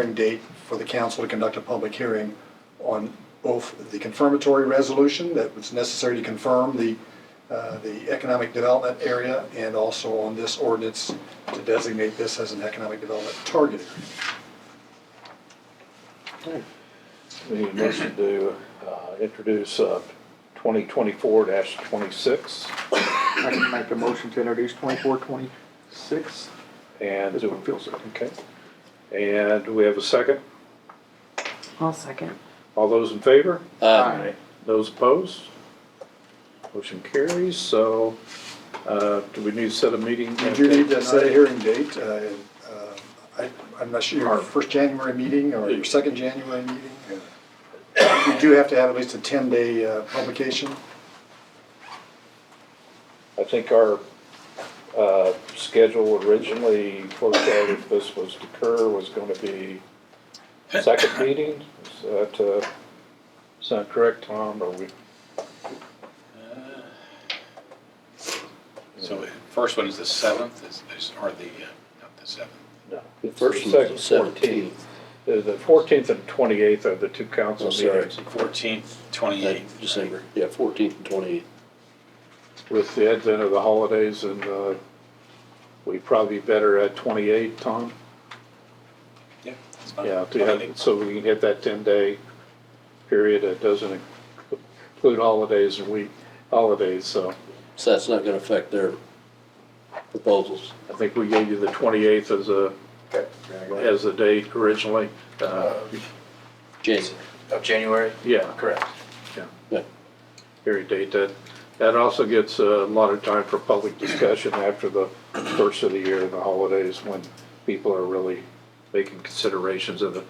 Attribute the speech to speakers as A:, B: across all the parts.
A: hearing date for the council to conduct a public hearing on both the confirmatory resolution that was necessary to confirm the, uh, the economic development area and also on this ordinance to designate this as an economic development target area.
B: We need a motion to uh, introduce twenty twenty-four twenty-six
C: I can make a motion to introduce twenty-four, twenty-six.
B: and.
C: This one feels good.
B: Okay. And do we have a second?
D: I'll second.
B: All those in favor?
C: Aye.
B: Those opposed? Motion carries, so uh, do we need to set a meeting?
A: We do need to set a hearing date. uh, and, uh, I- I'm not sure, your first January meeting or your second January meeting? uh, You do have to have at least a 10-day uh, publication.
B: I think our uh, schedule originally forecast if this was to occur was going to be second meeting. Is that, uh, is that correct, Tom, or we?
E: So the first one is the seventh, is, is- or the, uh, not the seventh.
B: No.
F: The first
B: The
F: one's
B: second, 14th.
F: the seventeenth.
B: The the 14th and 28th are the two council
F: Oh, sorry.
B: meetings
E: Fourteenth, twenty-eighth.
F: December, yeah, fourteenth and twenty-eighth.
B: with the advent of the holidays and uh, we probably better at 28, Tom?
E: Yeah. that's fine.
B: Yeah, to have- so we can hit that ten-day period that doesn't include holidays and week, holidays, so
F: So that's not gonna affect their proposals.
B: I think we gave you the twenty-eighth as a,
G: Um,
B: as the date originally. Uh,
F: January.
G: Of January?
B: Yeah,
G: Correct.
F: Yeah.
B: hearing date, that, that also gets a lot of time for public discussion after the first of the year and the holidays when people are really making considerations of the,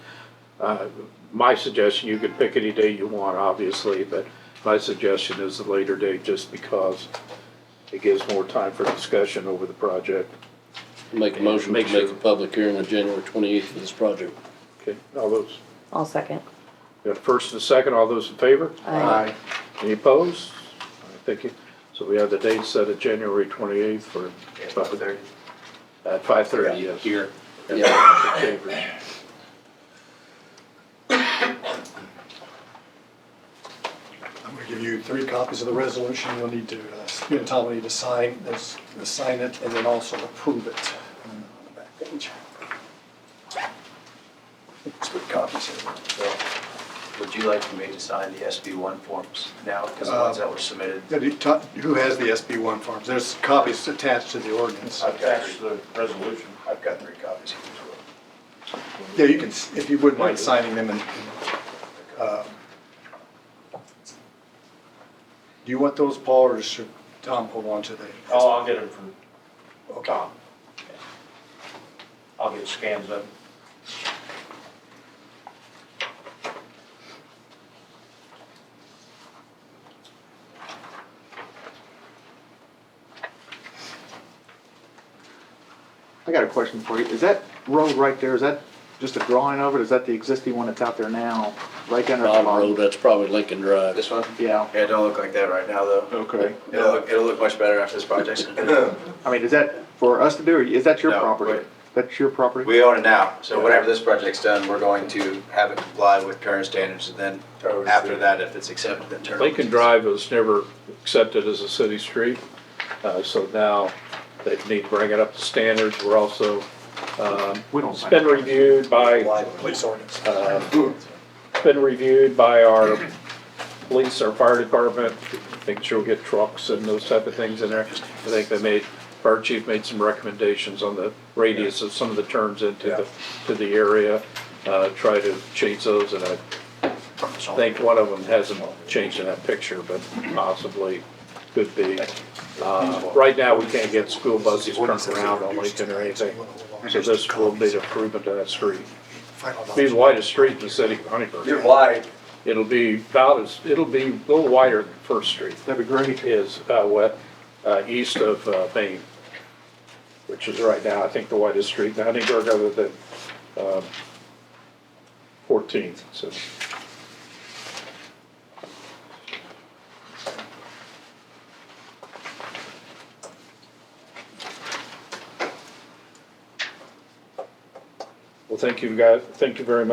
B: uh, my suggestion, you could pick any day you want, obviously, but my suggestion is the later date just because it gives more time for discussion over the project.
F: Make a motion to
B: Make
F: make a
B: sure.
F: public hearing on January twenty-eighth for this project.
B: Okay, all those,
D: I'll second.
B: got a first and a second, all those in favor?
D: Aye.
B: Any opposed? I think you. So we have the date set at January twenty-eighth for.
G: About there.
B: At five thirty,
E: Yeah,
B: yes.
E: Here,
F: Yeah,
B: Chambers.
A: I'm going to give you three copies of the resolution. You'll need to, uh, you and Tom will need to sign this, sign it, and then also approve it on the back page. It's good copies here.
G: So, would you like for me to sign the SB one forms now, because the ones that were submitted?
A: Yeah, do you ta- Who has the SB one forms? There's copies attached to the ordinance.
G: got the resolution. I've got three copies here as well.
A: Yeah, you can, s- if you wouldn't mind signing them and, uh, do you want those, Paul, or should Tom hold on to the?
G: Oh, I'll get them from
A: Okay.
G: I'll get scans of them.
C: I got a question for you. Is that road right there, is that just a drawing of it? Is that the existing one that's out there now? Right down there.
F: bottom road, that's probably Lincoln Drive.
G: This one?
C: Yeah,
G: Yeah, it don't look like that right now, though.
C: okay.
G: It'll look, it'll look much better after this project's completed.
C: I mean, is that for us to do, or is that your
G: No,
C: property?
G: wait.
C: That's your property?
G: We own it now, so whenever this project's done, we're going to have it comply with current standards, and then after that, if it's accepted, then turn. it over to
B: Lincoln
G: us.
B: Drive was never accepted as a city street, uh, so now they need to bring it up to standards. We're also, um,
C: We don't.
B: it's been reviewed by,
A: Police ordinance.
B: uh, it's been reviewed by our police, our fire department, making sure we get trucks and those type of things in there. I think they made, fire chief made some recommendations on the radius of some of the turns into the, to the area. Uh, try to change those, and I think one of them hasn't changed in that picture, but possibly could be. Uh, right now, we can't get school buses turned around on Lincoln or anything, so this will be an improvement to that street. It'll Be the widest street in the city of Huntingburg.
G: You're wide.
B: It'll be about as, it'll be a little wider than First Street
C: That'd be great.
B: is uh, west, uh, east of uh, Main, which is right now, I think, the widest street in Huntingburg other than um, 14th, so. Well, thank you guys, thank you very much.